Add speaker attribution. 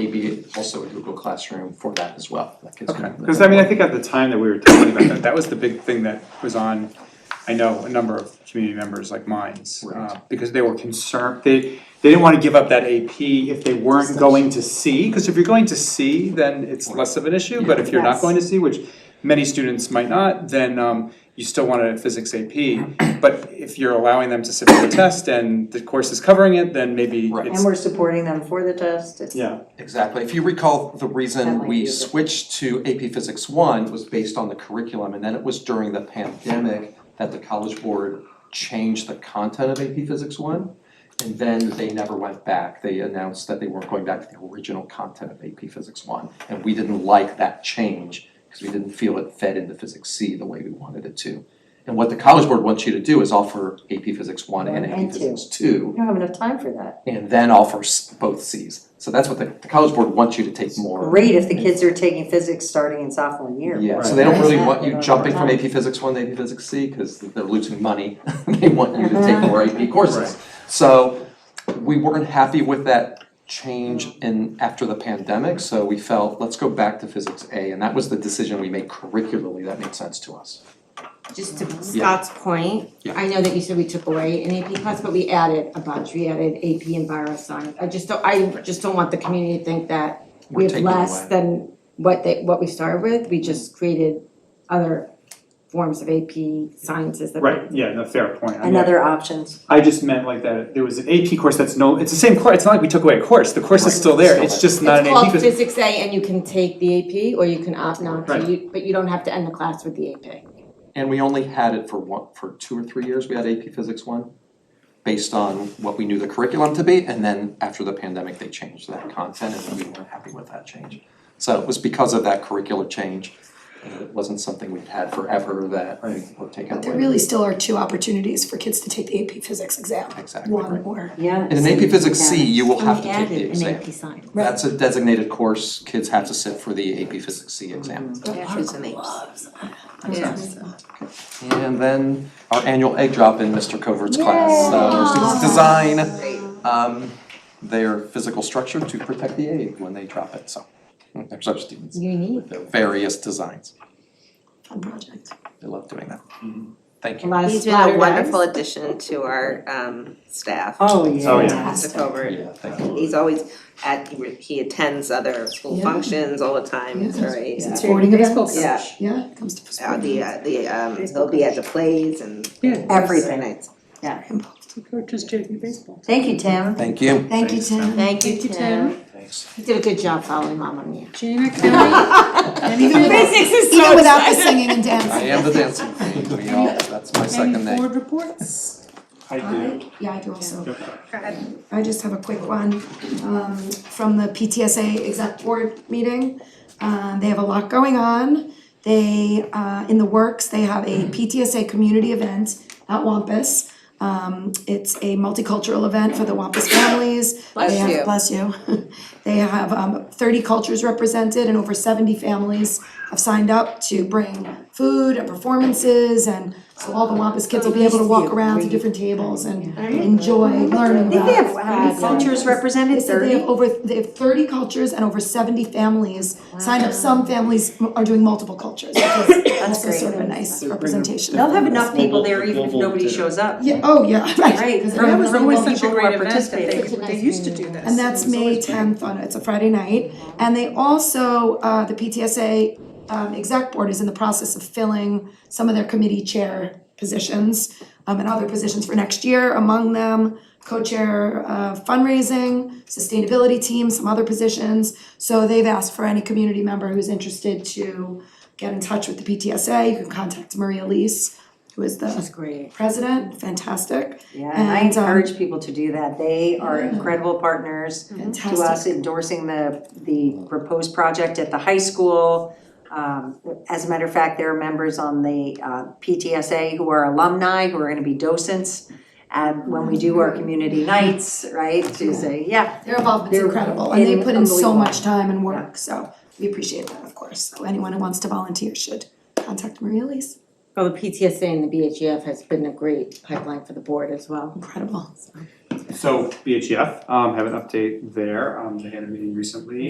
Speaker 1: maybe also a Google Classroom for that as well. That gives me-
Speaker 2: Because I mean, I think at the time that we were talking about that, that was the big thing that was on, I know, a number of community members like mine's. uh,
Speaker 1: Right.
Speaker 2: Because they were concerned, they, they didn't want to give up that AP if they weren't going to C. Because if you're going to C, then it's less of an issue, but if you're not
Speaker 3: Yes.
Speaker 2: going to C, which many students might not, then um, you still want a physics AP. But if you're allowing them to sit for the test and the course is covering it, then maybe
Speaker 1: Right.
Speaker 3: And
Speaker 2: it's,
Speaker 3: we're supporting them for the test, it's.
Speaker 2: yeah.
Speaker 1: Exactly. If you recall, the
Speaker 3: That
Speaker 1: reason
Speaker 3: might
Speaker 1: we
Speaker 3: be a bit-
Speaker 1: switched to AP Physics One was based on the curriculum, and then it was during the pandemic that the College Board changed the content of AP Physics One. And then they never went back. They announced that they weren't going back to the original content of AP Physics One. And we didn't like that change because we didn't feel it fed into Physics C the way we wanted it to. And what the College Board wants you to do is offer AP Physics One and
Speaker 3: One
Speaker 1: AP
Speaker 3: and two.
Speaker 1: Physics Two
Speaker 3: We don't have enough time for that.
Speaker 1: and then offer s- both Cs. So that's what the, the College Board wants you to take more.
Speaker 3: Great if the kids are taking physics starting in sophomore year.
Speaker 1: Yeah, so they don't really want you
Speaker 3: Right.
Speaker 1: jumping from AP Physics one to AP Physics C, cause they're losing money, they want you to take more AP courses.
Speaker 2: Right.
Speaker 1: So, we weren't happy with that change in, after the pandemic, so we felt, let's go back to Physics A, and that was the decision we made curricularly, that made sense to us.
Speaker 4: Just to Scott's point,
Speaker 1: Yeah.
Speaker 4: I know that you said we took away an AP class, but we added a bunch, we added AP and Science. I just don't, I just don't want the community to think that
Speaker 1: We're
Speaker 4: we have
Speaker 1: taking
Speaker 4: less
Speaker 1: away.
Speaker 4: than what they, what we started with, we just created other forms of AP sciences that.
Speaker 2: Right, yeah, no, fair point. I mean,
Speaker 3: And other options.
Speaker 2: I just meant like that, there was an AP course that's no, it's the same course, it's not like we took away a course, the course is still there, it's just not an
Speaker 4: It's
Speaker 2: AP.
Speaker 4: called
Speaker 2: course.
Speaker 4: Physics A and you can take the AP or you can opt not to,
Speaker 2: Right.
Speaker 4: you, but you don't have to end the class with the AP.
Speaker 1: And we only had it for one, for two or three years, we had AP Physics one, based on what we knew the curriculum to be, and then after the pandemic, they changed that content, and we weren't happy with that change. So it was because of that curricular change, and it wasn't something we'd had forever that we were taken
Speaker 5: There
Speaker 1: away.
Speaker 5: really still are two opportunities for kids to take the AP Physics exam.
Speaker 1: Exactly,
Speaker 5: One
Speaker 1: right.
Speaker 5: or,
Speaker 3: Yeah.
Speaker 1: And in AP Physics C, you will have to take the
Speaker 4: We added
Speaker 1: exam.
Speaker 4: an AP science.
Speaker 1: That's a designated course, kids have to sit for the AP Physics C exam.
Speaker 5: Mm-hmm.
Speaker 1: And then our annual egg drop in Mr. Covert's class, so students design um their physical structure to protect the egg when they drop it, so there's our students.
Speaker 4: Unique.
Speaker 1: Their various designs,
Speaker 5: fun project.
Speaker 1: they love doing that. Thank
Speaker 4: A
Speaker 1: you.
Speaker 4: lot of
Speaker 6: He's been a
Speaker 4: splatter
Speaker 6: wonderful
Speaker 4: dives.
Speaker 6: addition to our um staff.
Speaker 3: Oh, yeah.
Speaker 2: Oh, yeah.
Speaker 6: Mr. Colbert.
Speaker 1: Yeah, thank you.
Speaker 6: He's always at, he attends other school
Speaker 5: Yeah.
Speaker 6: functions all the time, it's
Speaker 5: Yeah.
Speaker 6: very,
Speaker 5: Is it
Speaker 6: uh,
Speaker 5: sporting events?
Speaker 6: Yeah.
Speaker 5: Yeah, it comes to
Speaker 6: uh,
Speaker 5: sporting
Speaker 6: the
Speaker 5: events.
Speaker 6: uh, the um, he'll be at the plays and
Speaker 3: Everything.
Speaker 6: nights.
Speaker 3: Thank you, Tim.
Speaker 1: Thank you.
Speaker 5: Thank you, Tim.
Speaker 4: Thank you,
Speaker 7: Thank you,
Speaker 4: Tim.
Speaker 1: Thanks.
Speaker 4: You did a good job following mom on the.
Speaker 7: Jana, can I, and even without,
Speaker 4: is
Speaker 5: Even without the singing and dancing.
Speaker 1: I am the dancing queen, we all, that's my second
Speaker 7: any
Speaker 1: name.
Speaker 7: board reports?
Speaker 2: I do.
Speaker 5: I, yeah, I do also. I just have a quick one, um, from the PTSA exec board meeting. Uh, they have a lot going on. They, uh, in the works, they have a PTSA community event at Wampus. Um, it's a multicultural event for the Wampus families. Bless you. Bless you. They have, um, thirty cultures represented and over seventy families have signed up to bring food and performances and so all the Wampus kids will be able to walk around to different tables and enjoy learning about.
Speaker 3: They have uh, cultures represented,
Speaker 5: They said they have
Speaker 3: thirty.
Speaker 5: over, they have thirty cultures and over seventy families signed up, some families m- are doing multiple cultures, which is also
Speaker 3: great.
Speaker 5: sort of a nice representation.
Speaker 3: They'll have enough people there even if nobody shows up.
Speaker 5: Yeah, oh, yeah, right,
Speaker 3: Right,
Speaker 5: 'cause
Speaker 3: remember
Speaker 5: everyone-
Speaker 3: always such a great
Speaker 7: They,
Speaker 3: event
Speaker 7: they used to do this.
Speaker 5: and that's May tenth on, it. it's a Friday night, and they also, uh, the PTSA um, exec board is in the process of filling some of their committee chair positions, um, and other positions for next year, among them, co-chair of fundraising, sustainability team, some other positions. So they've asked for any community member who's interested to get in touch with the PTSA, you can contact Maria Lees, who is the
Speaker 4: great.
Speaker 5: president, fantastic,
Speaker 3: Yeah, and I
Speaker 5: And, um,
Speaker 3: encourage people to do that. They are incredible partners to us
Speaker 5: fantastic.
Speaker 3: endorsing the, the proposed project at the high school. Um, as a matter of fact, there are members on the uh, PTSA who are alumni, who are gonna be docents at, when we do our community nights, right, to say, yeah,
Speaker 5: Their involvement's
Speaker 3: They're
Speaker 5: incredible, and they
Speaker 3: in-
Speaker 5: put in so
Speaker 3: unbelievable.
Speaker 5: much time and work, so we appreciate that, of course. So anyone who wants to volunteer should contact Maria Elise.
Speaker 4: E Well, the PTSA and the BHF has been a great pipeline for the board as well.
Speaker 5: Incredible.
Speaker 2: E So BHF, um, have an update there, um, they had a meeting recently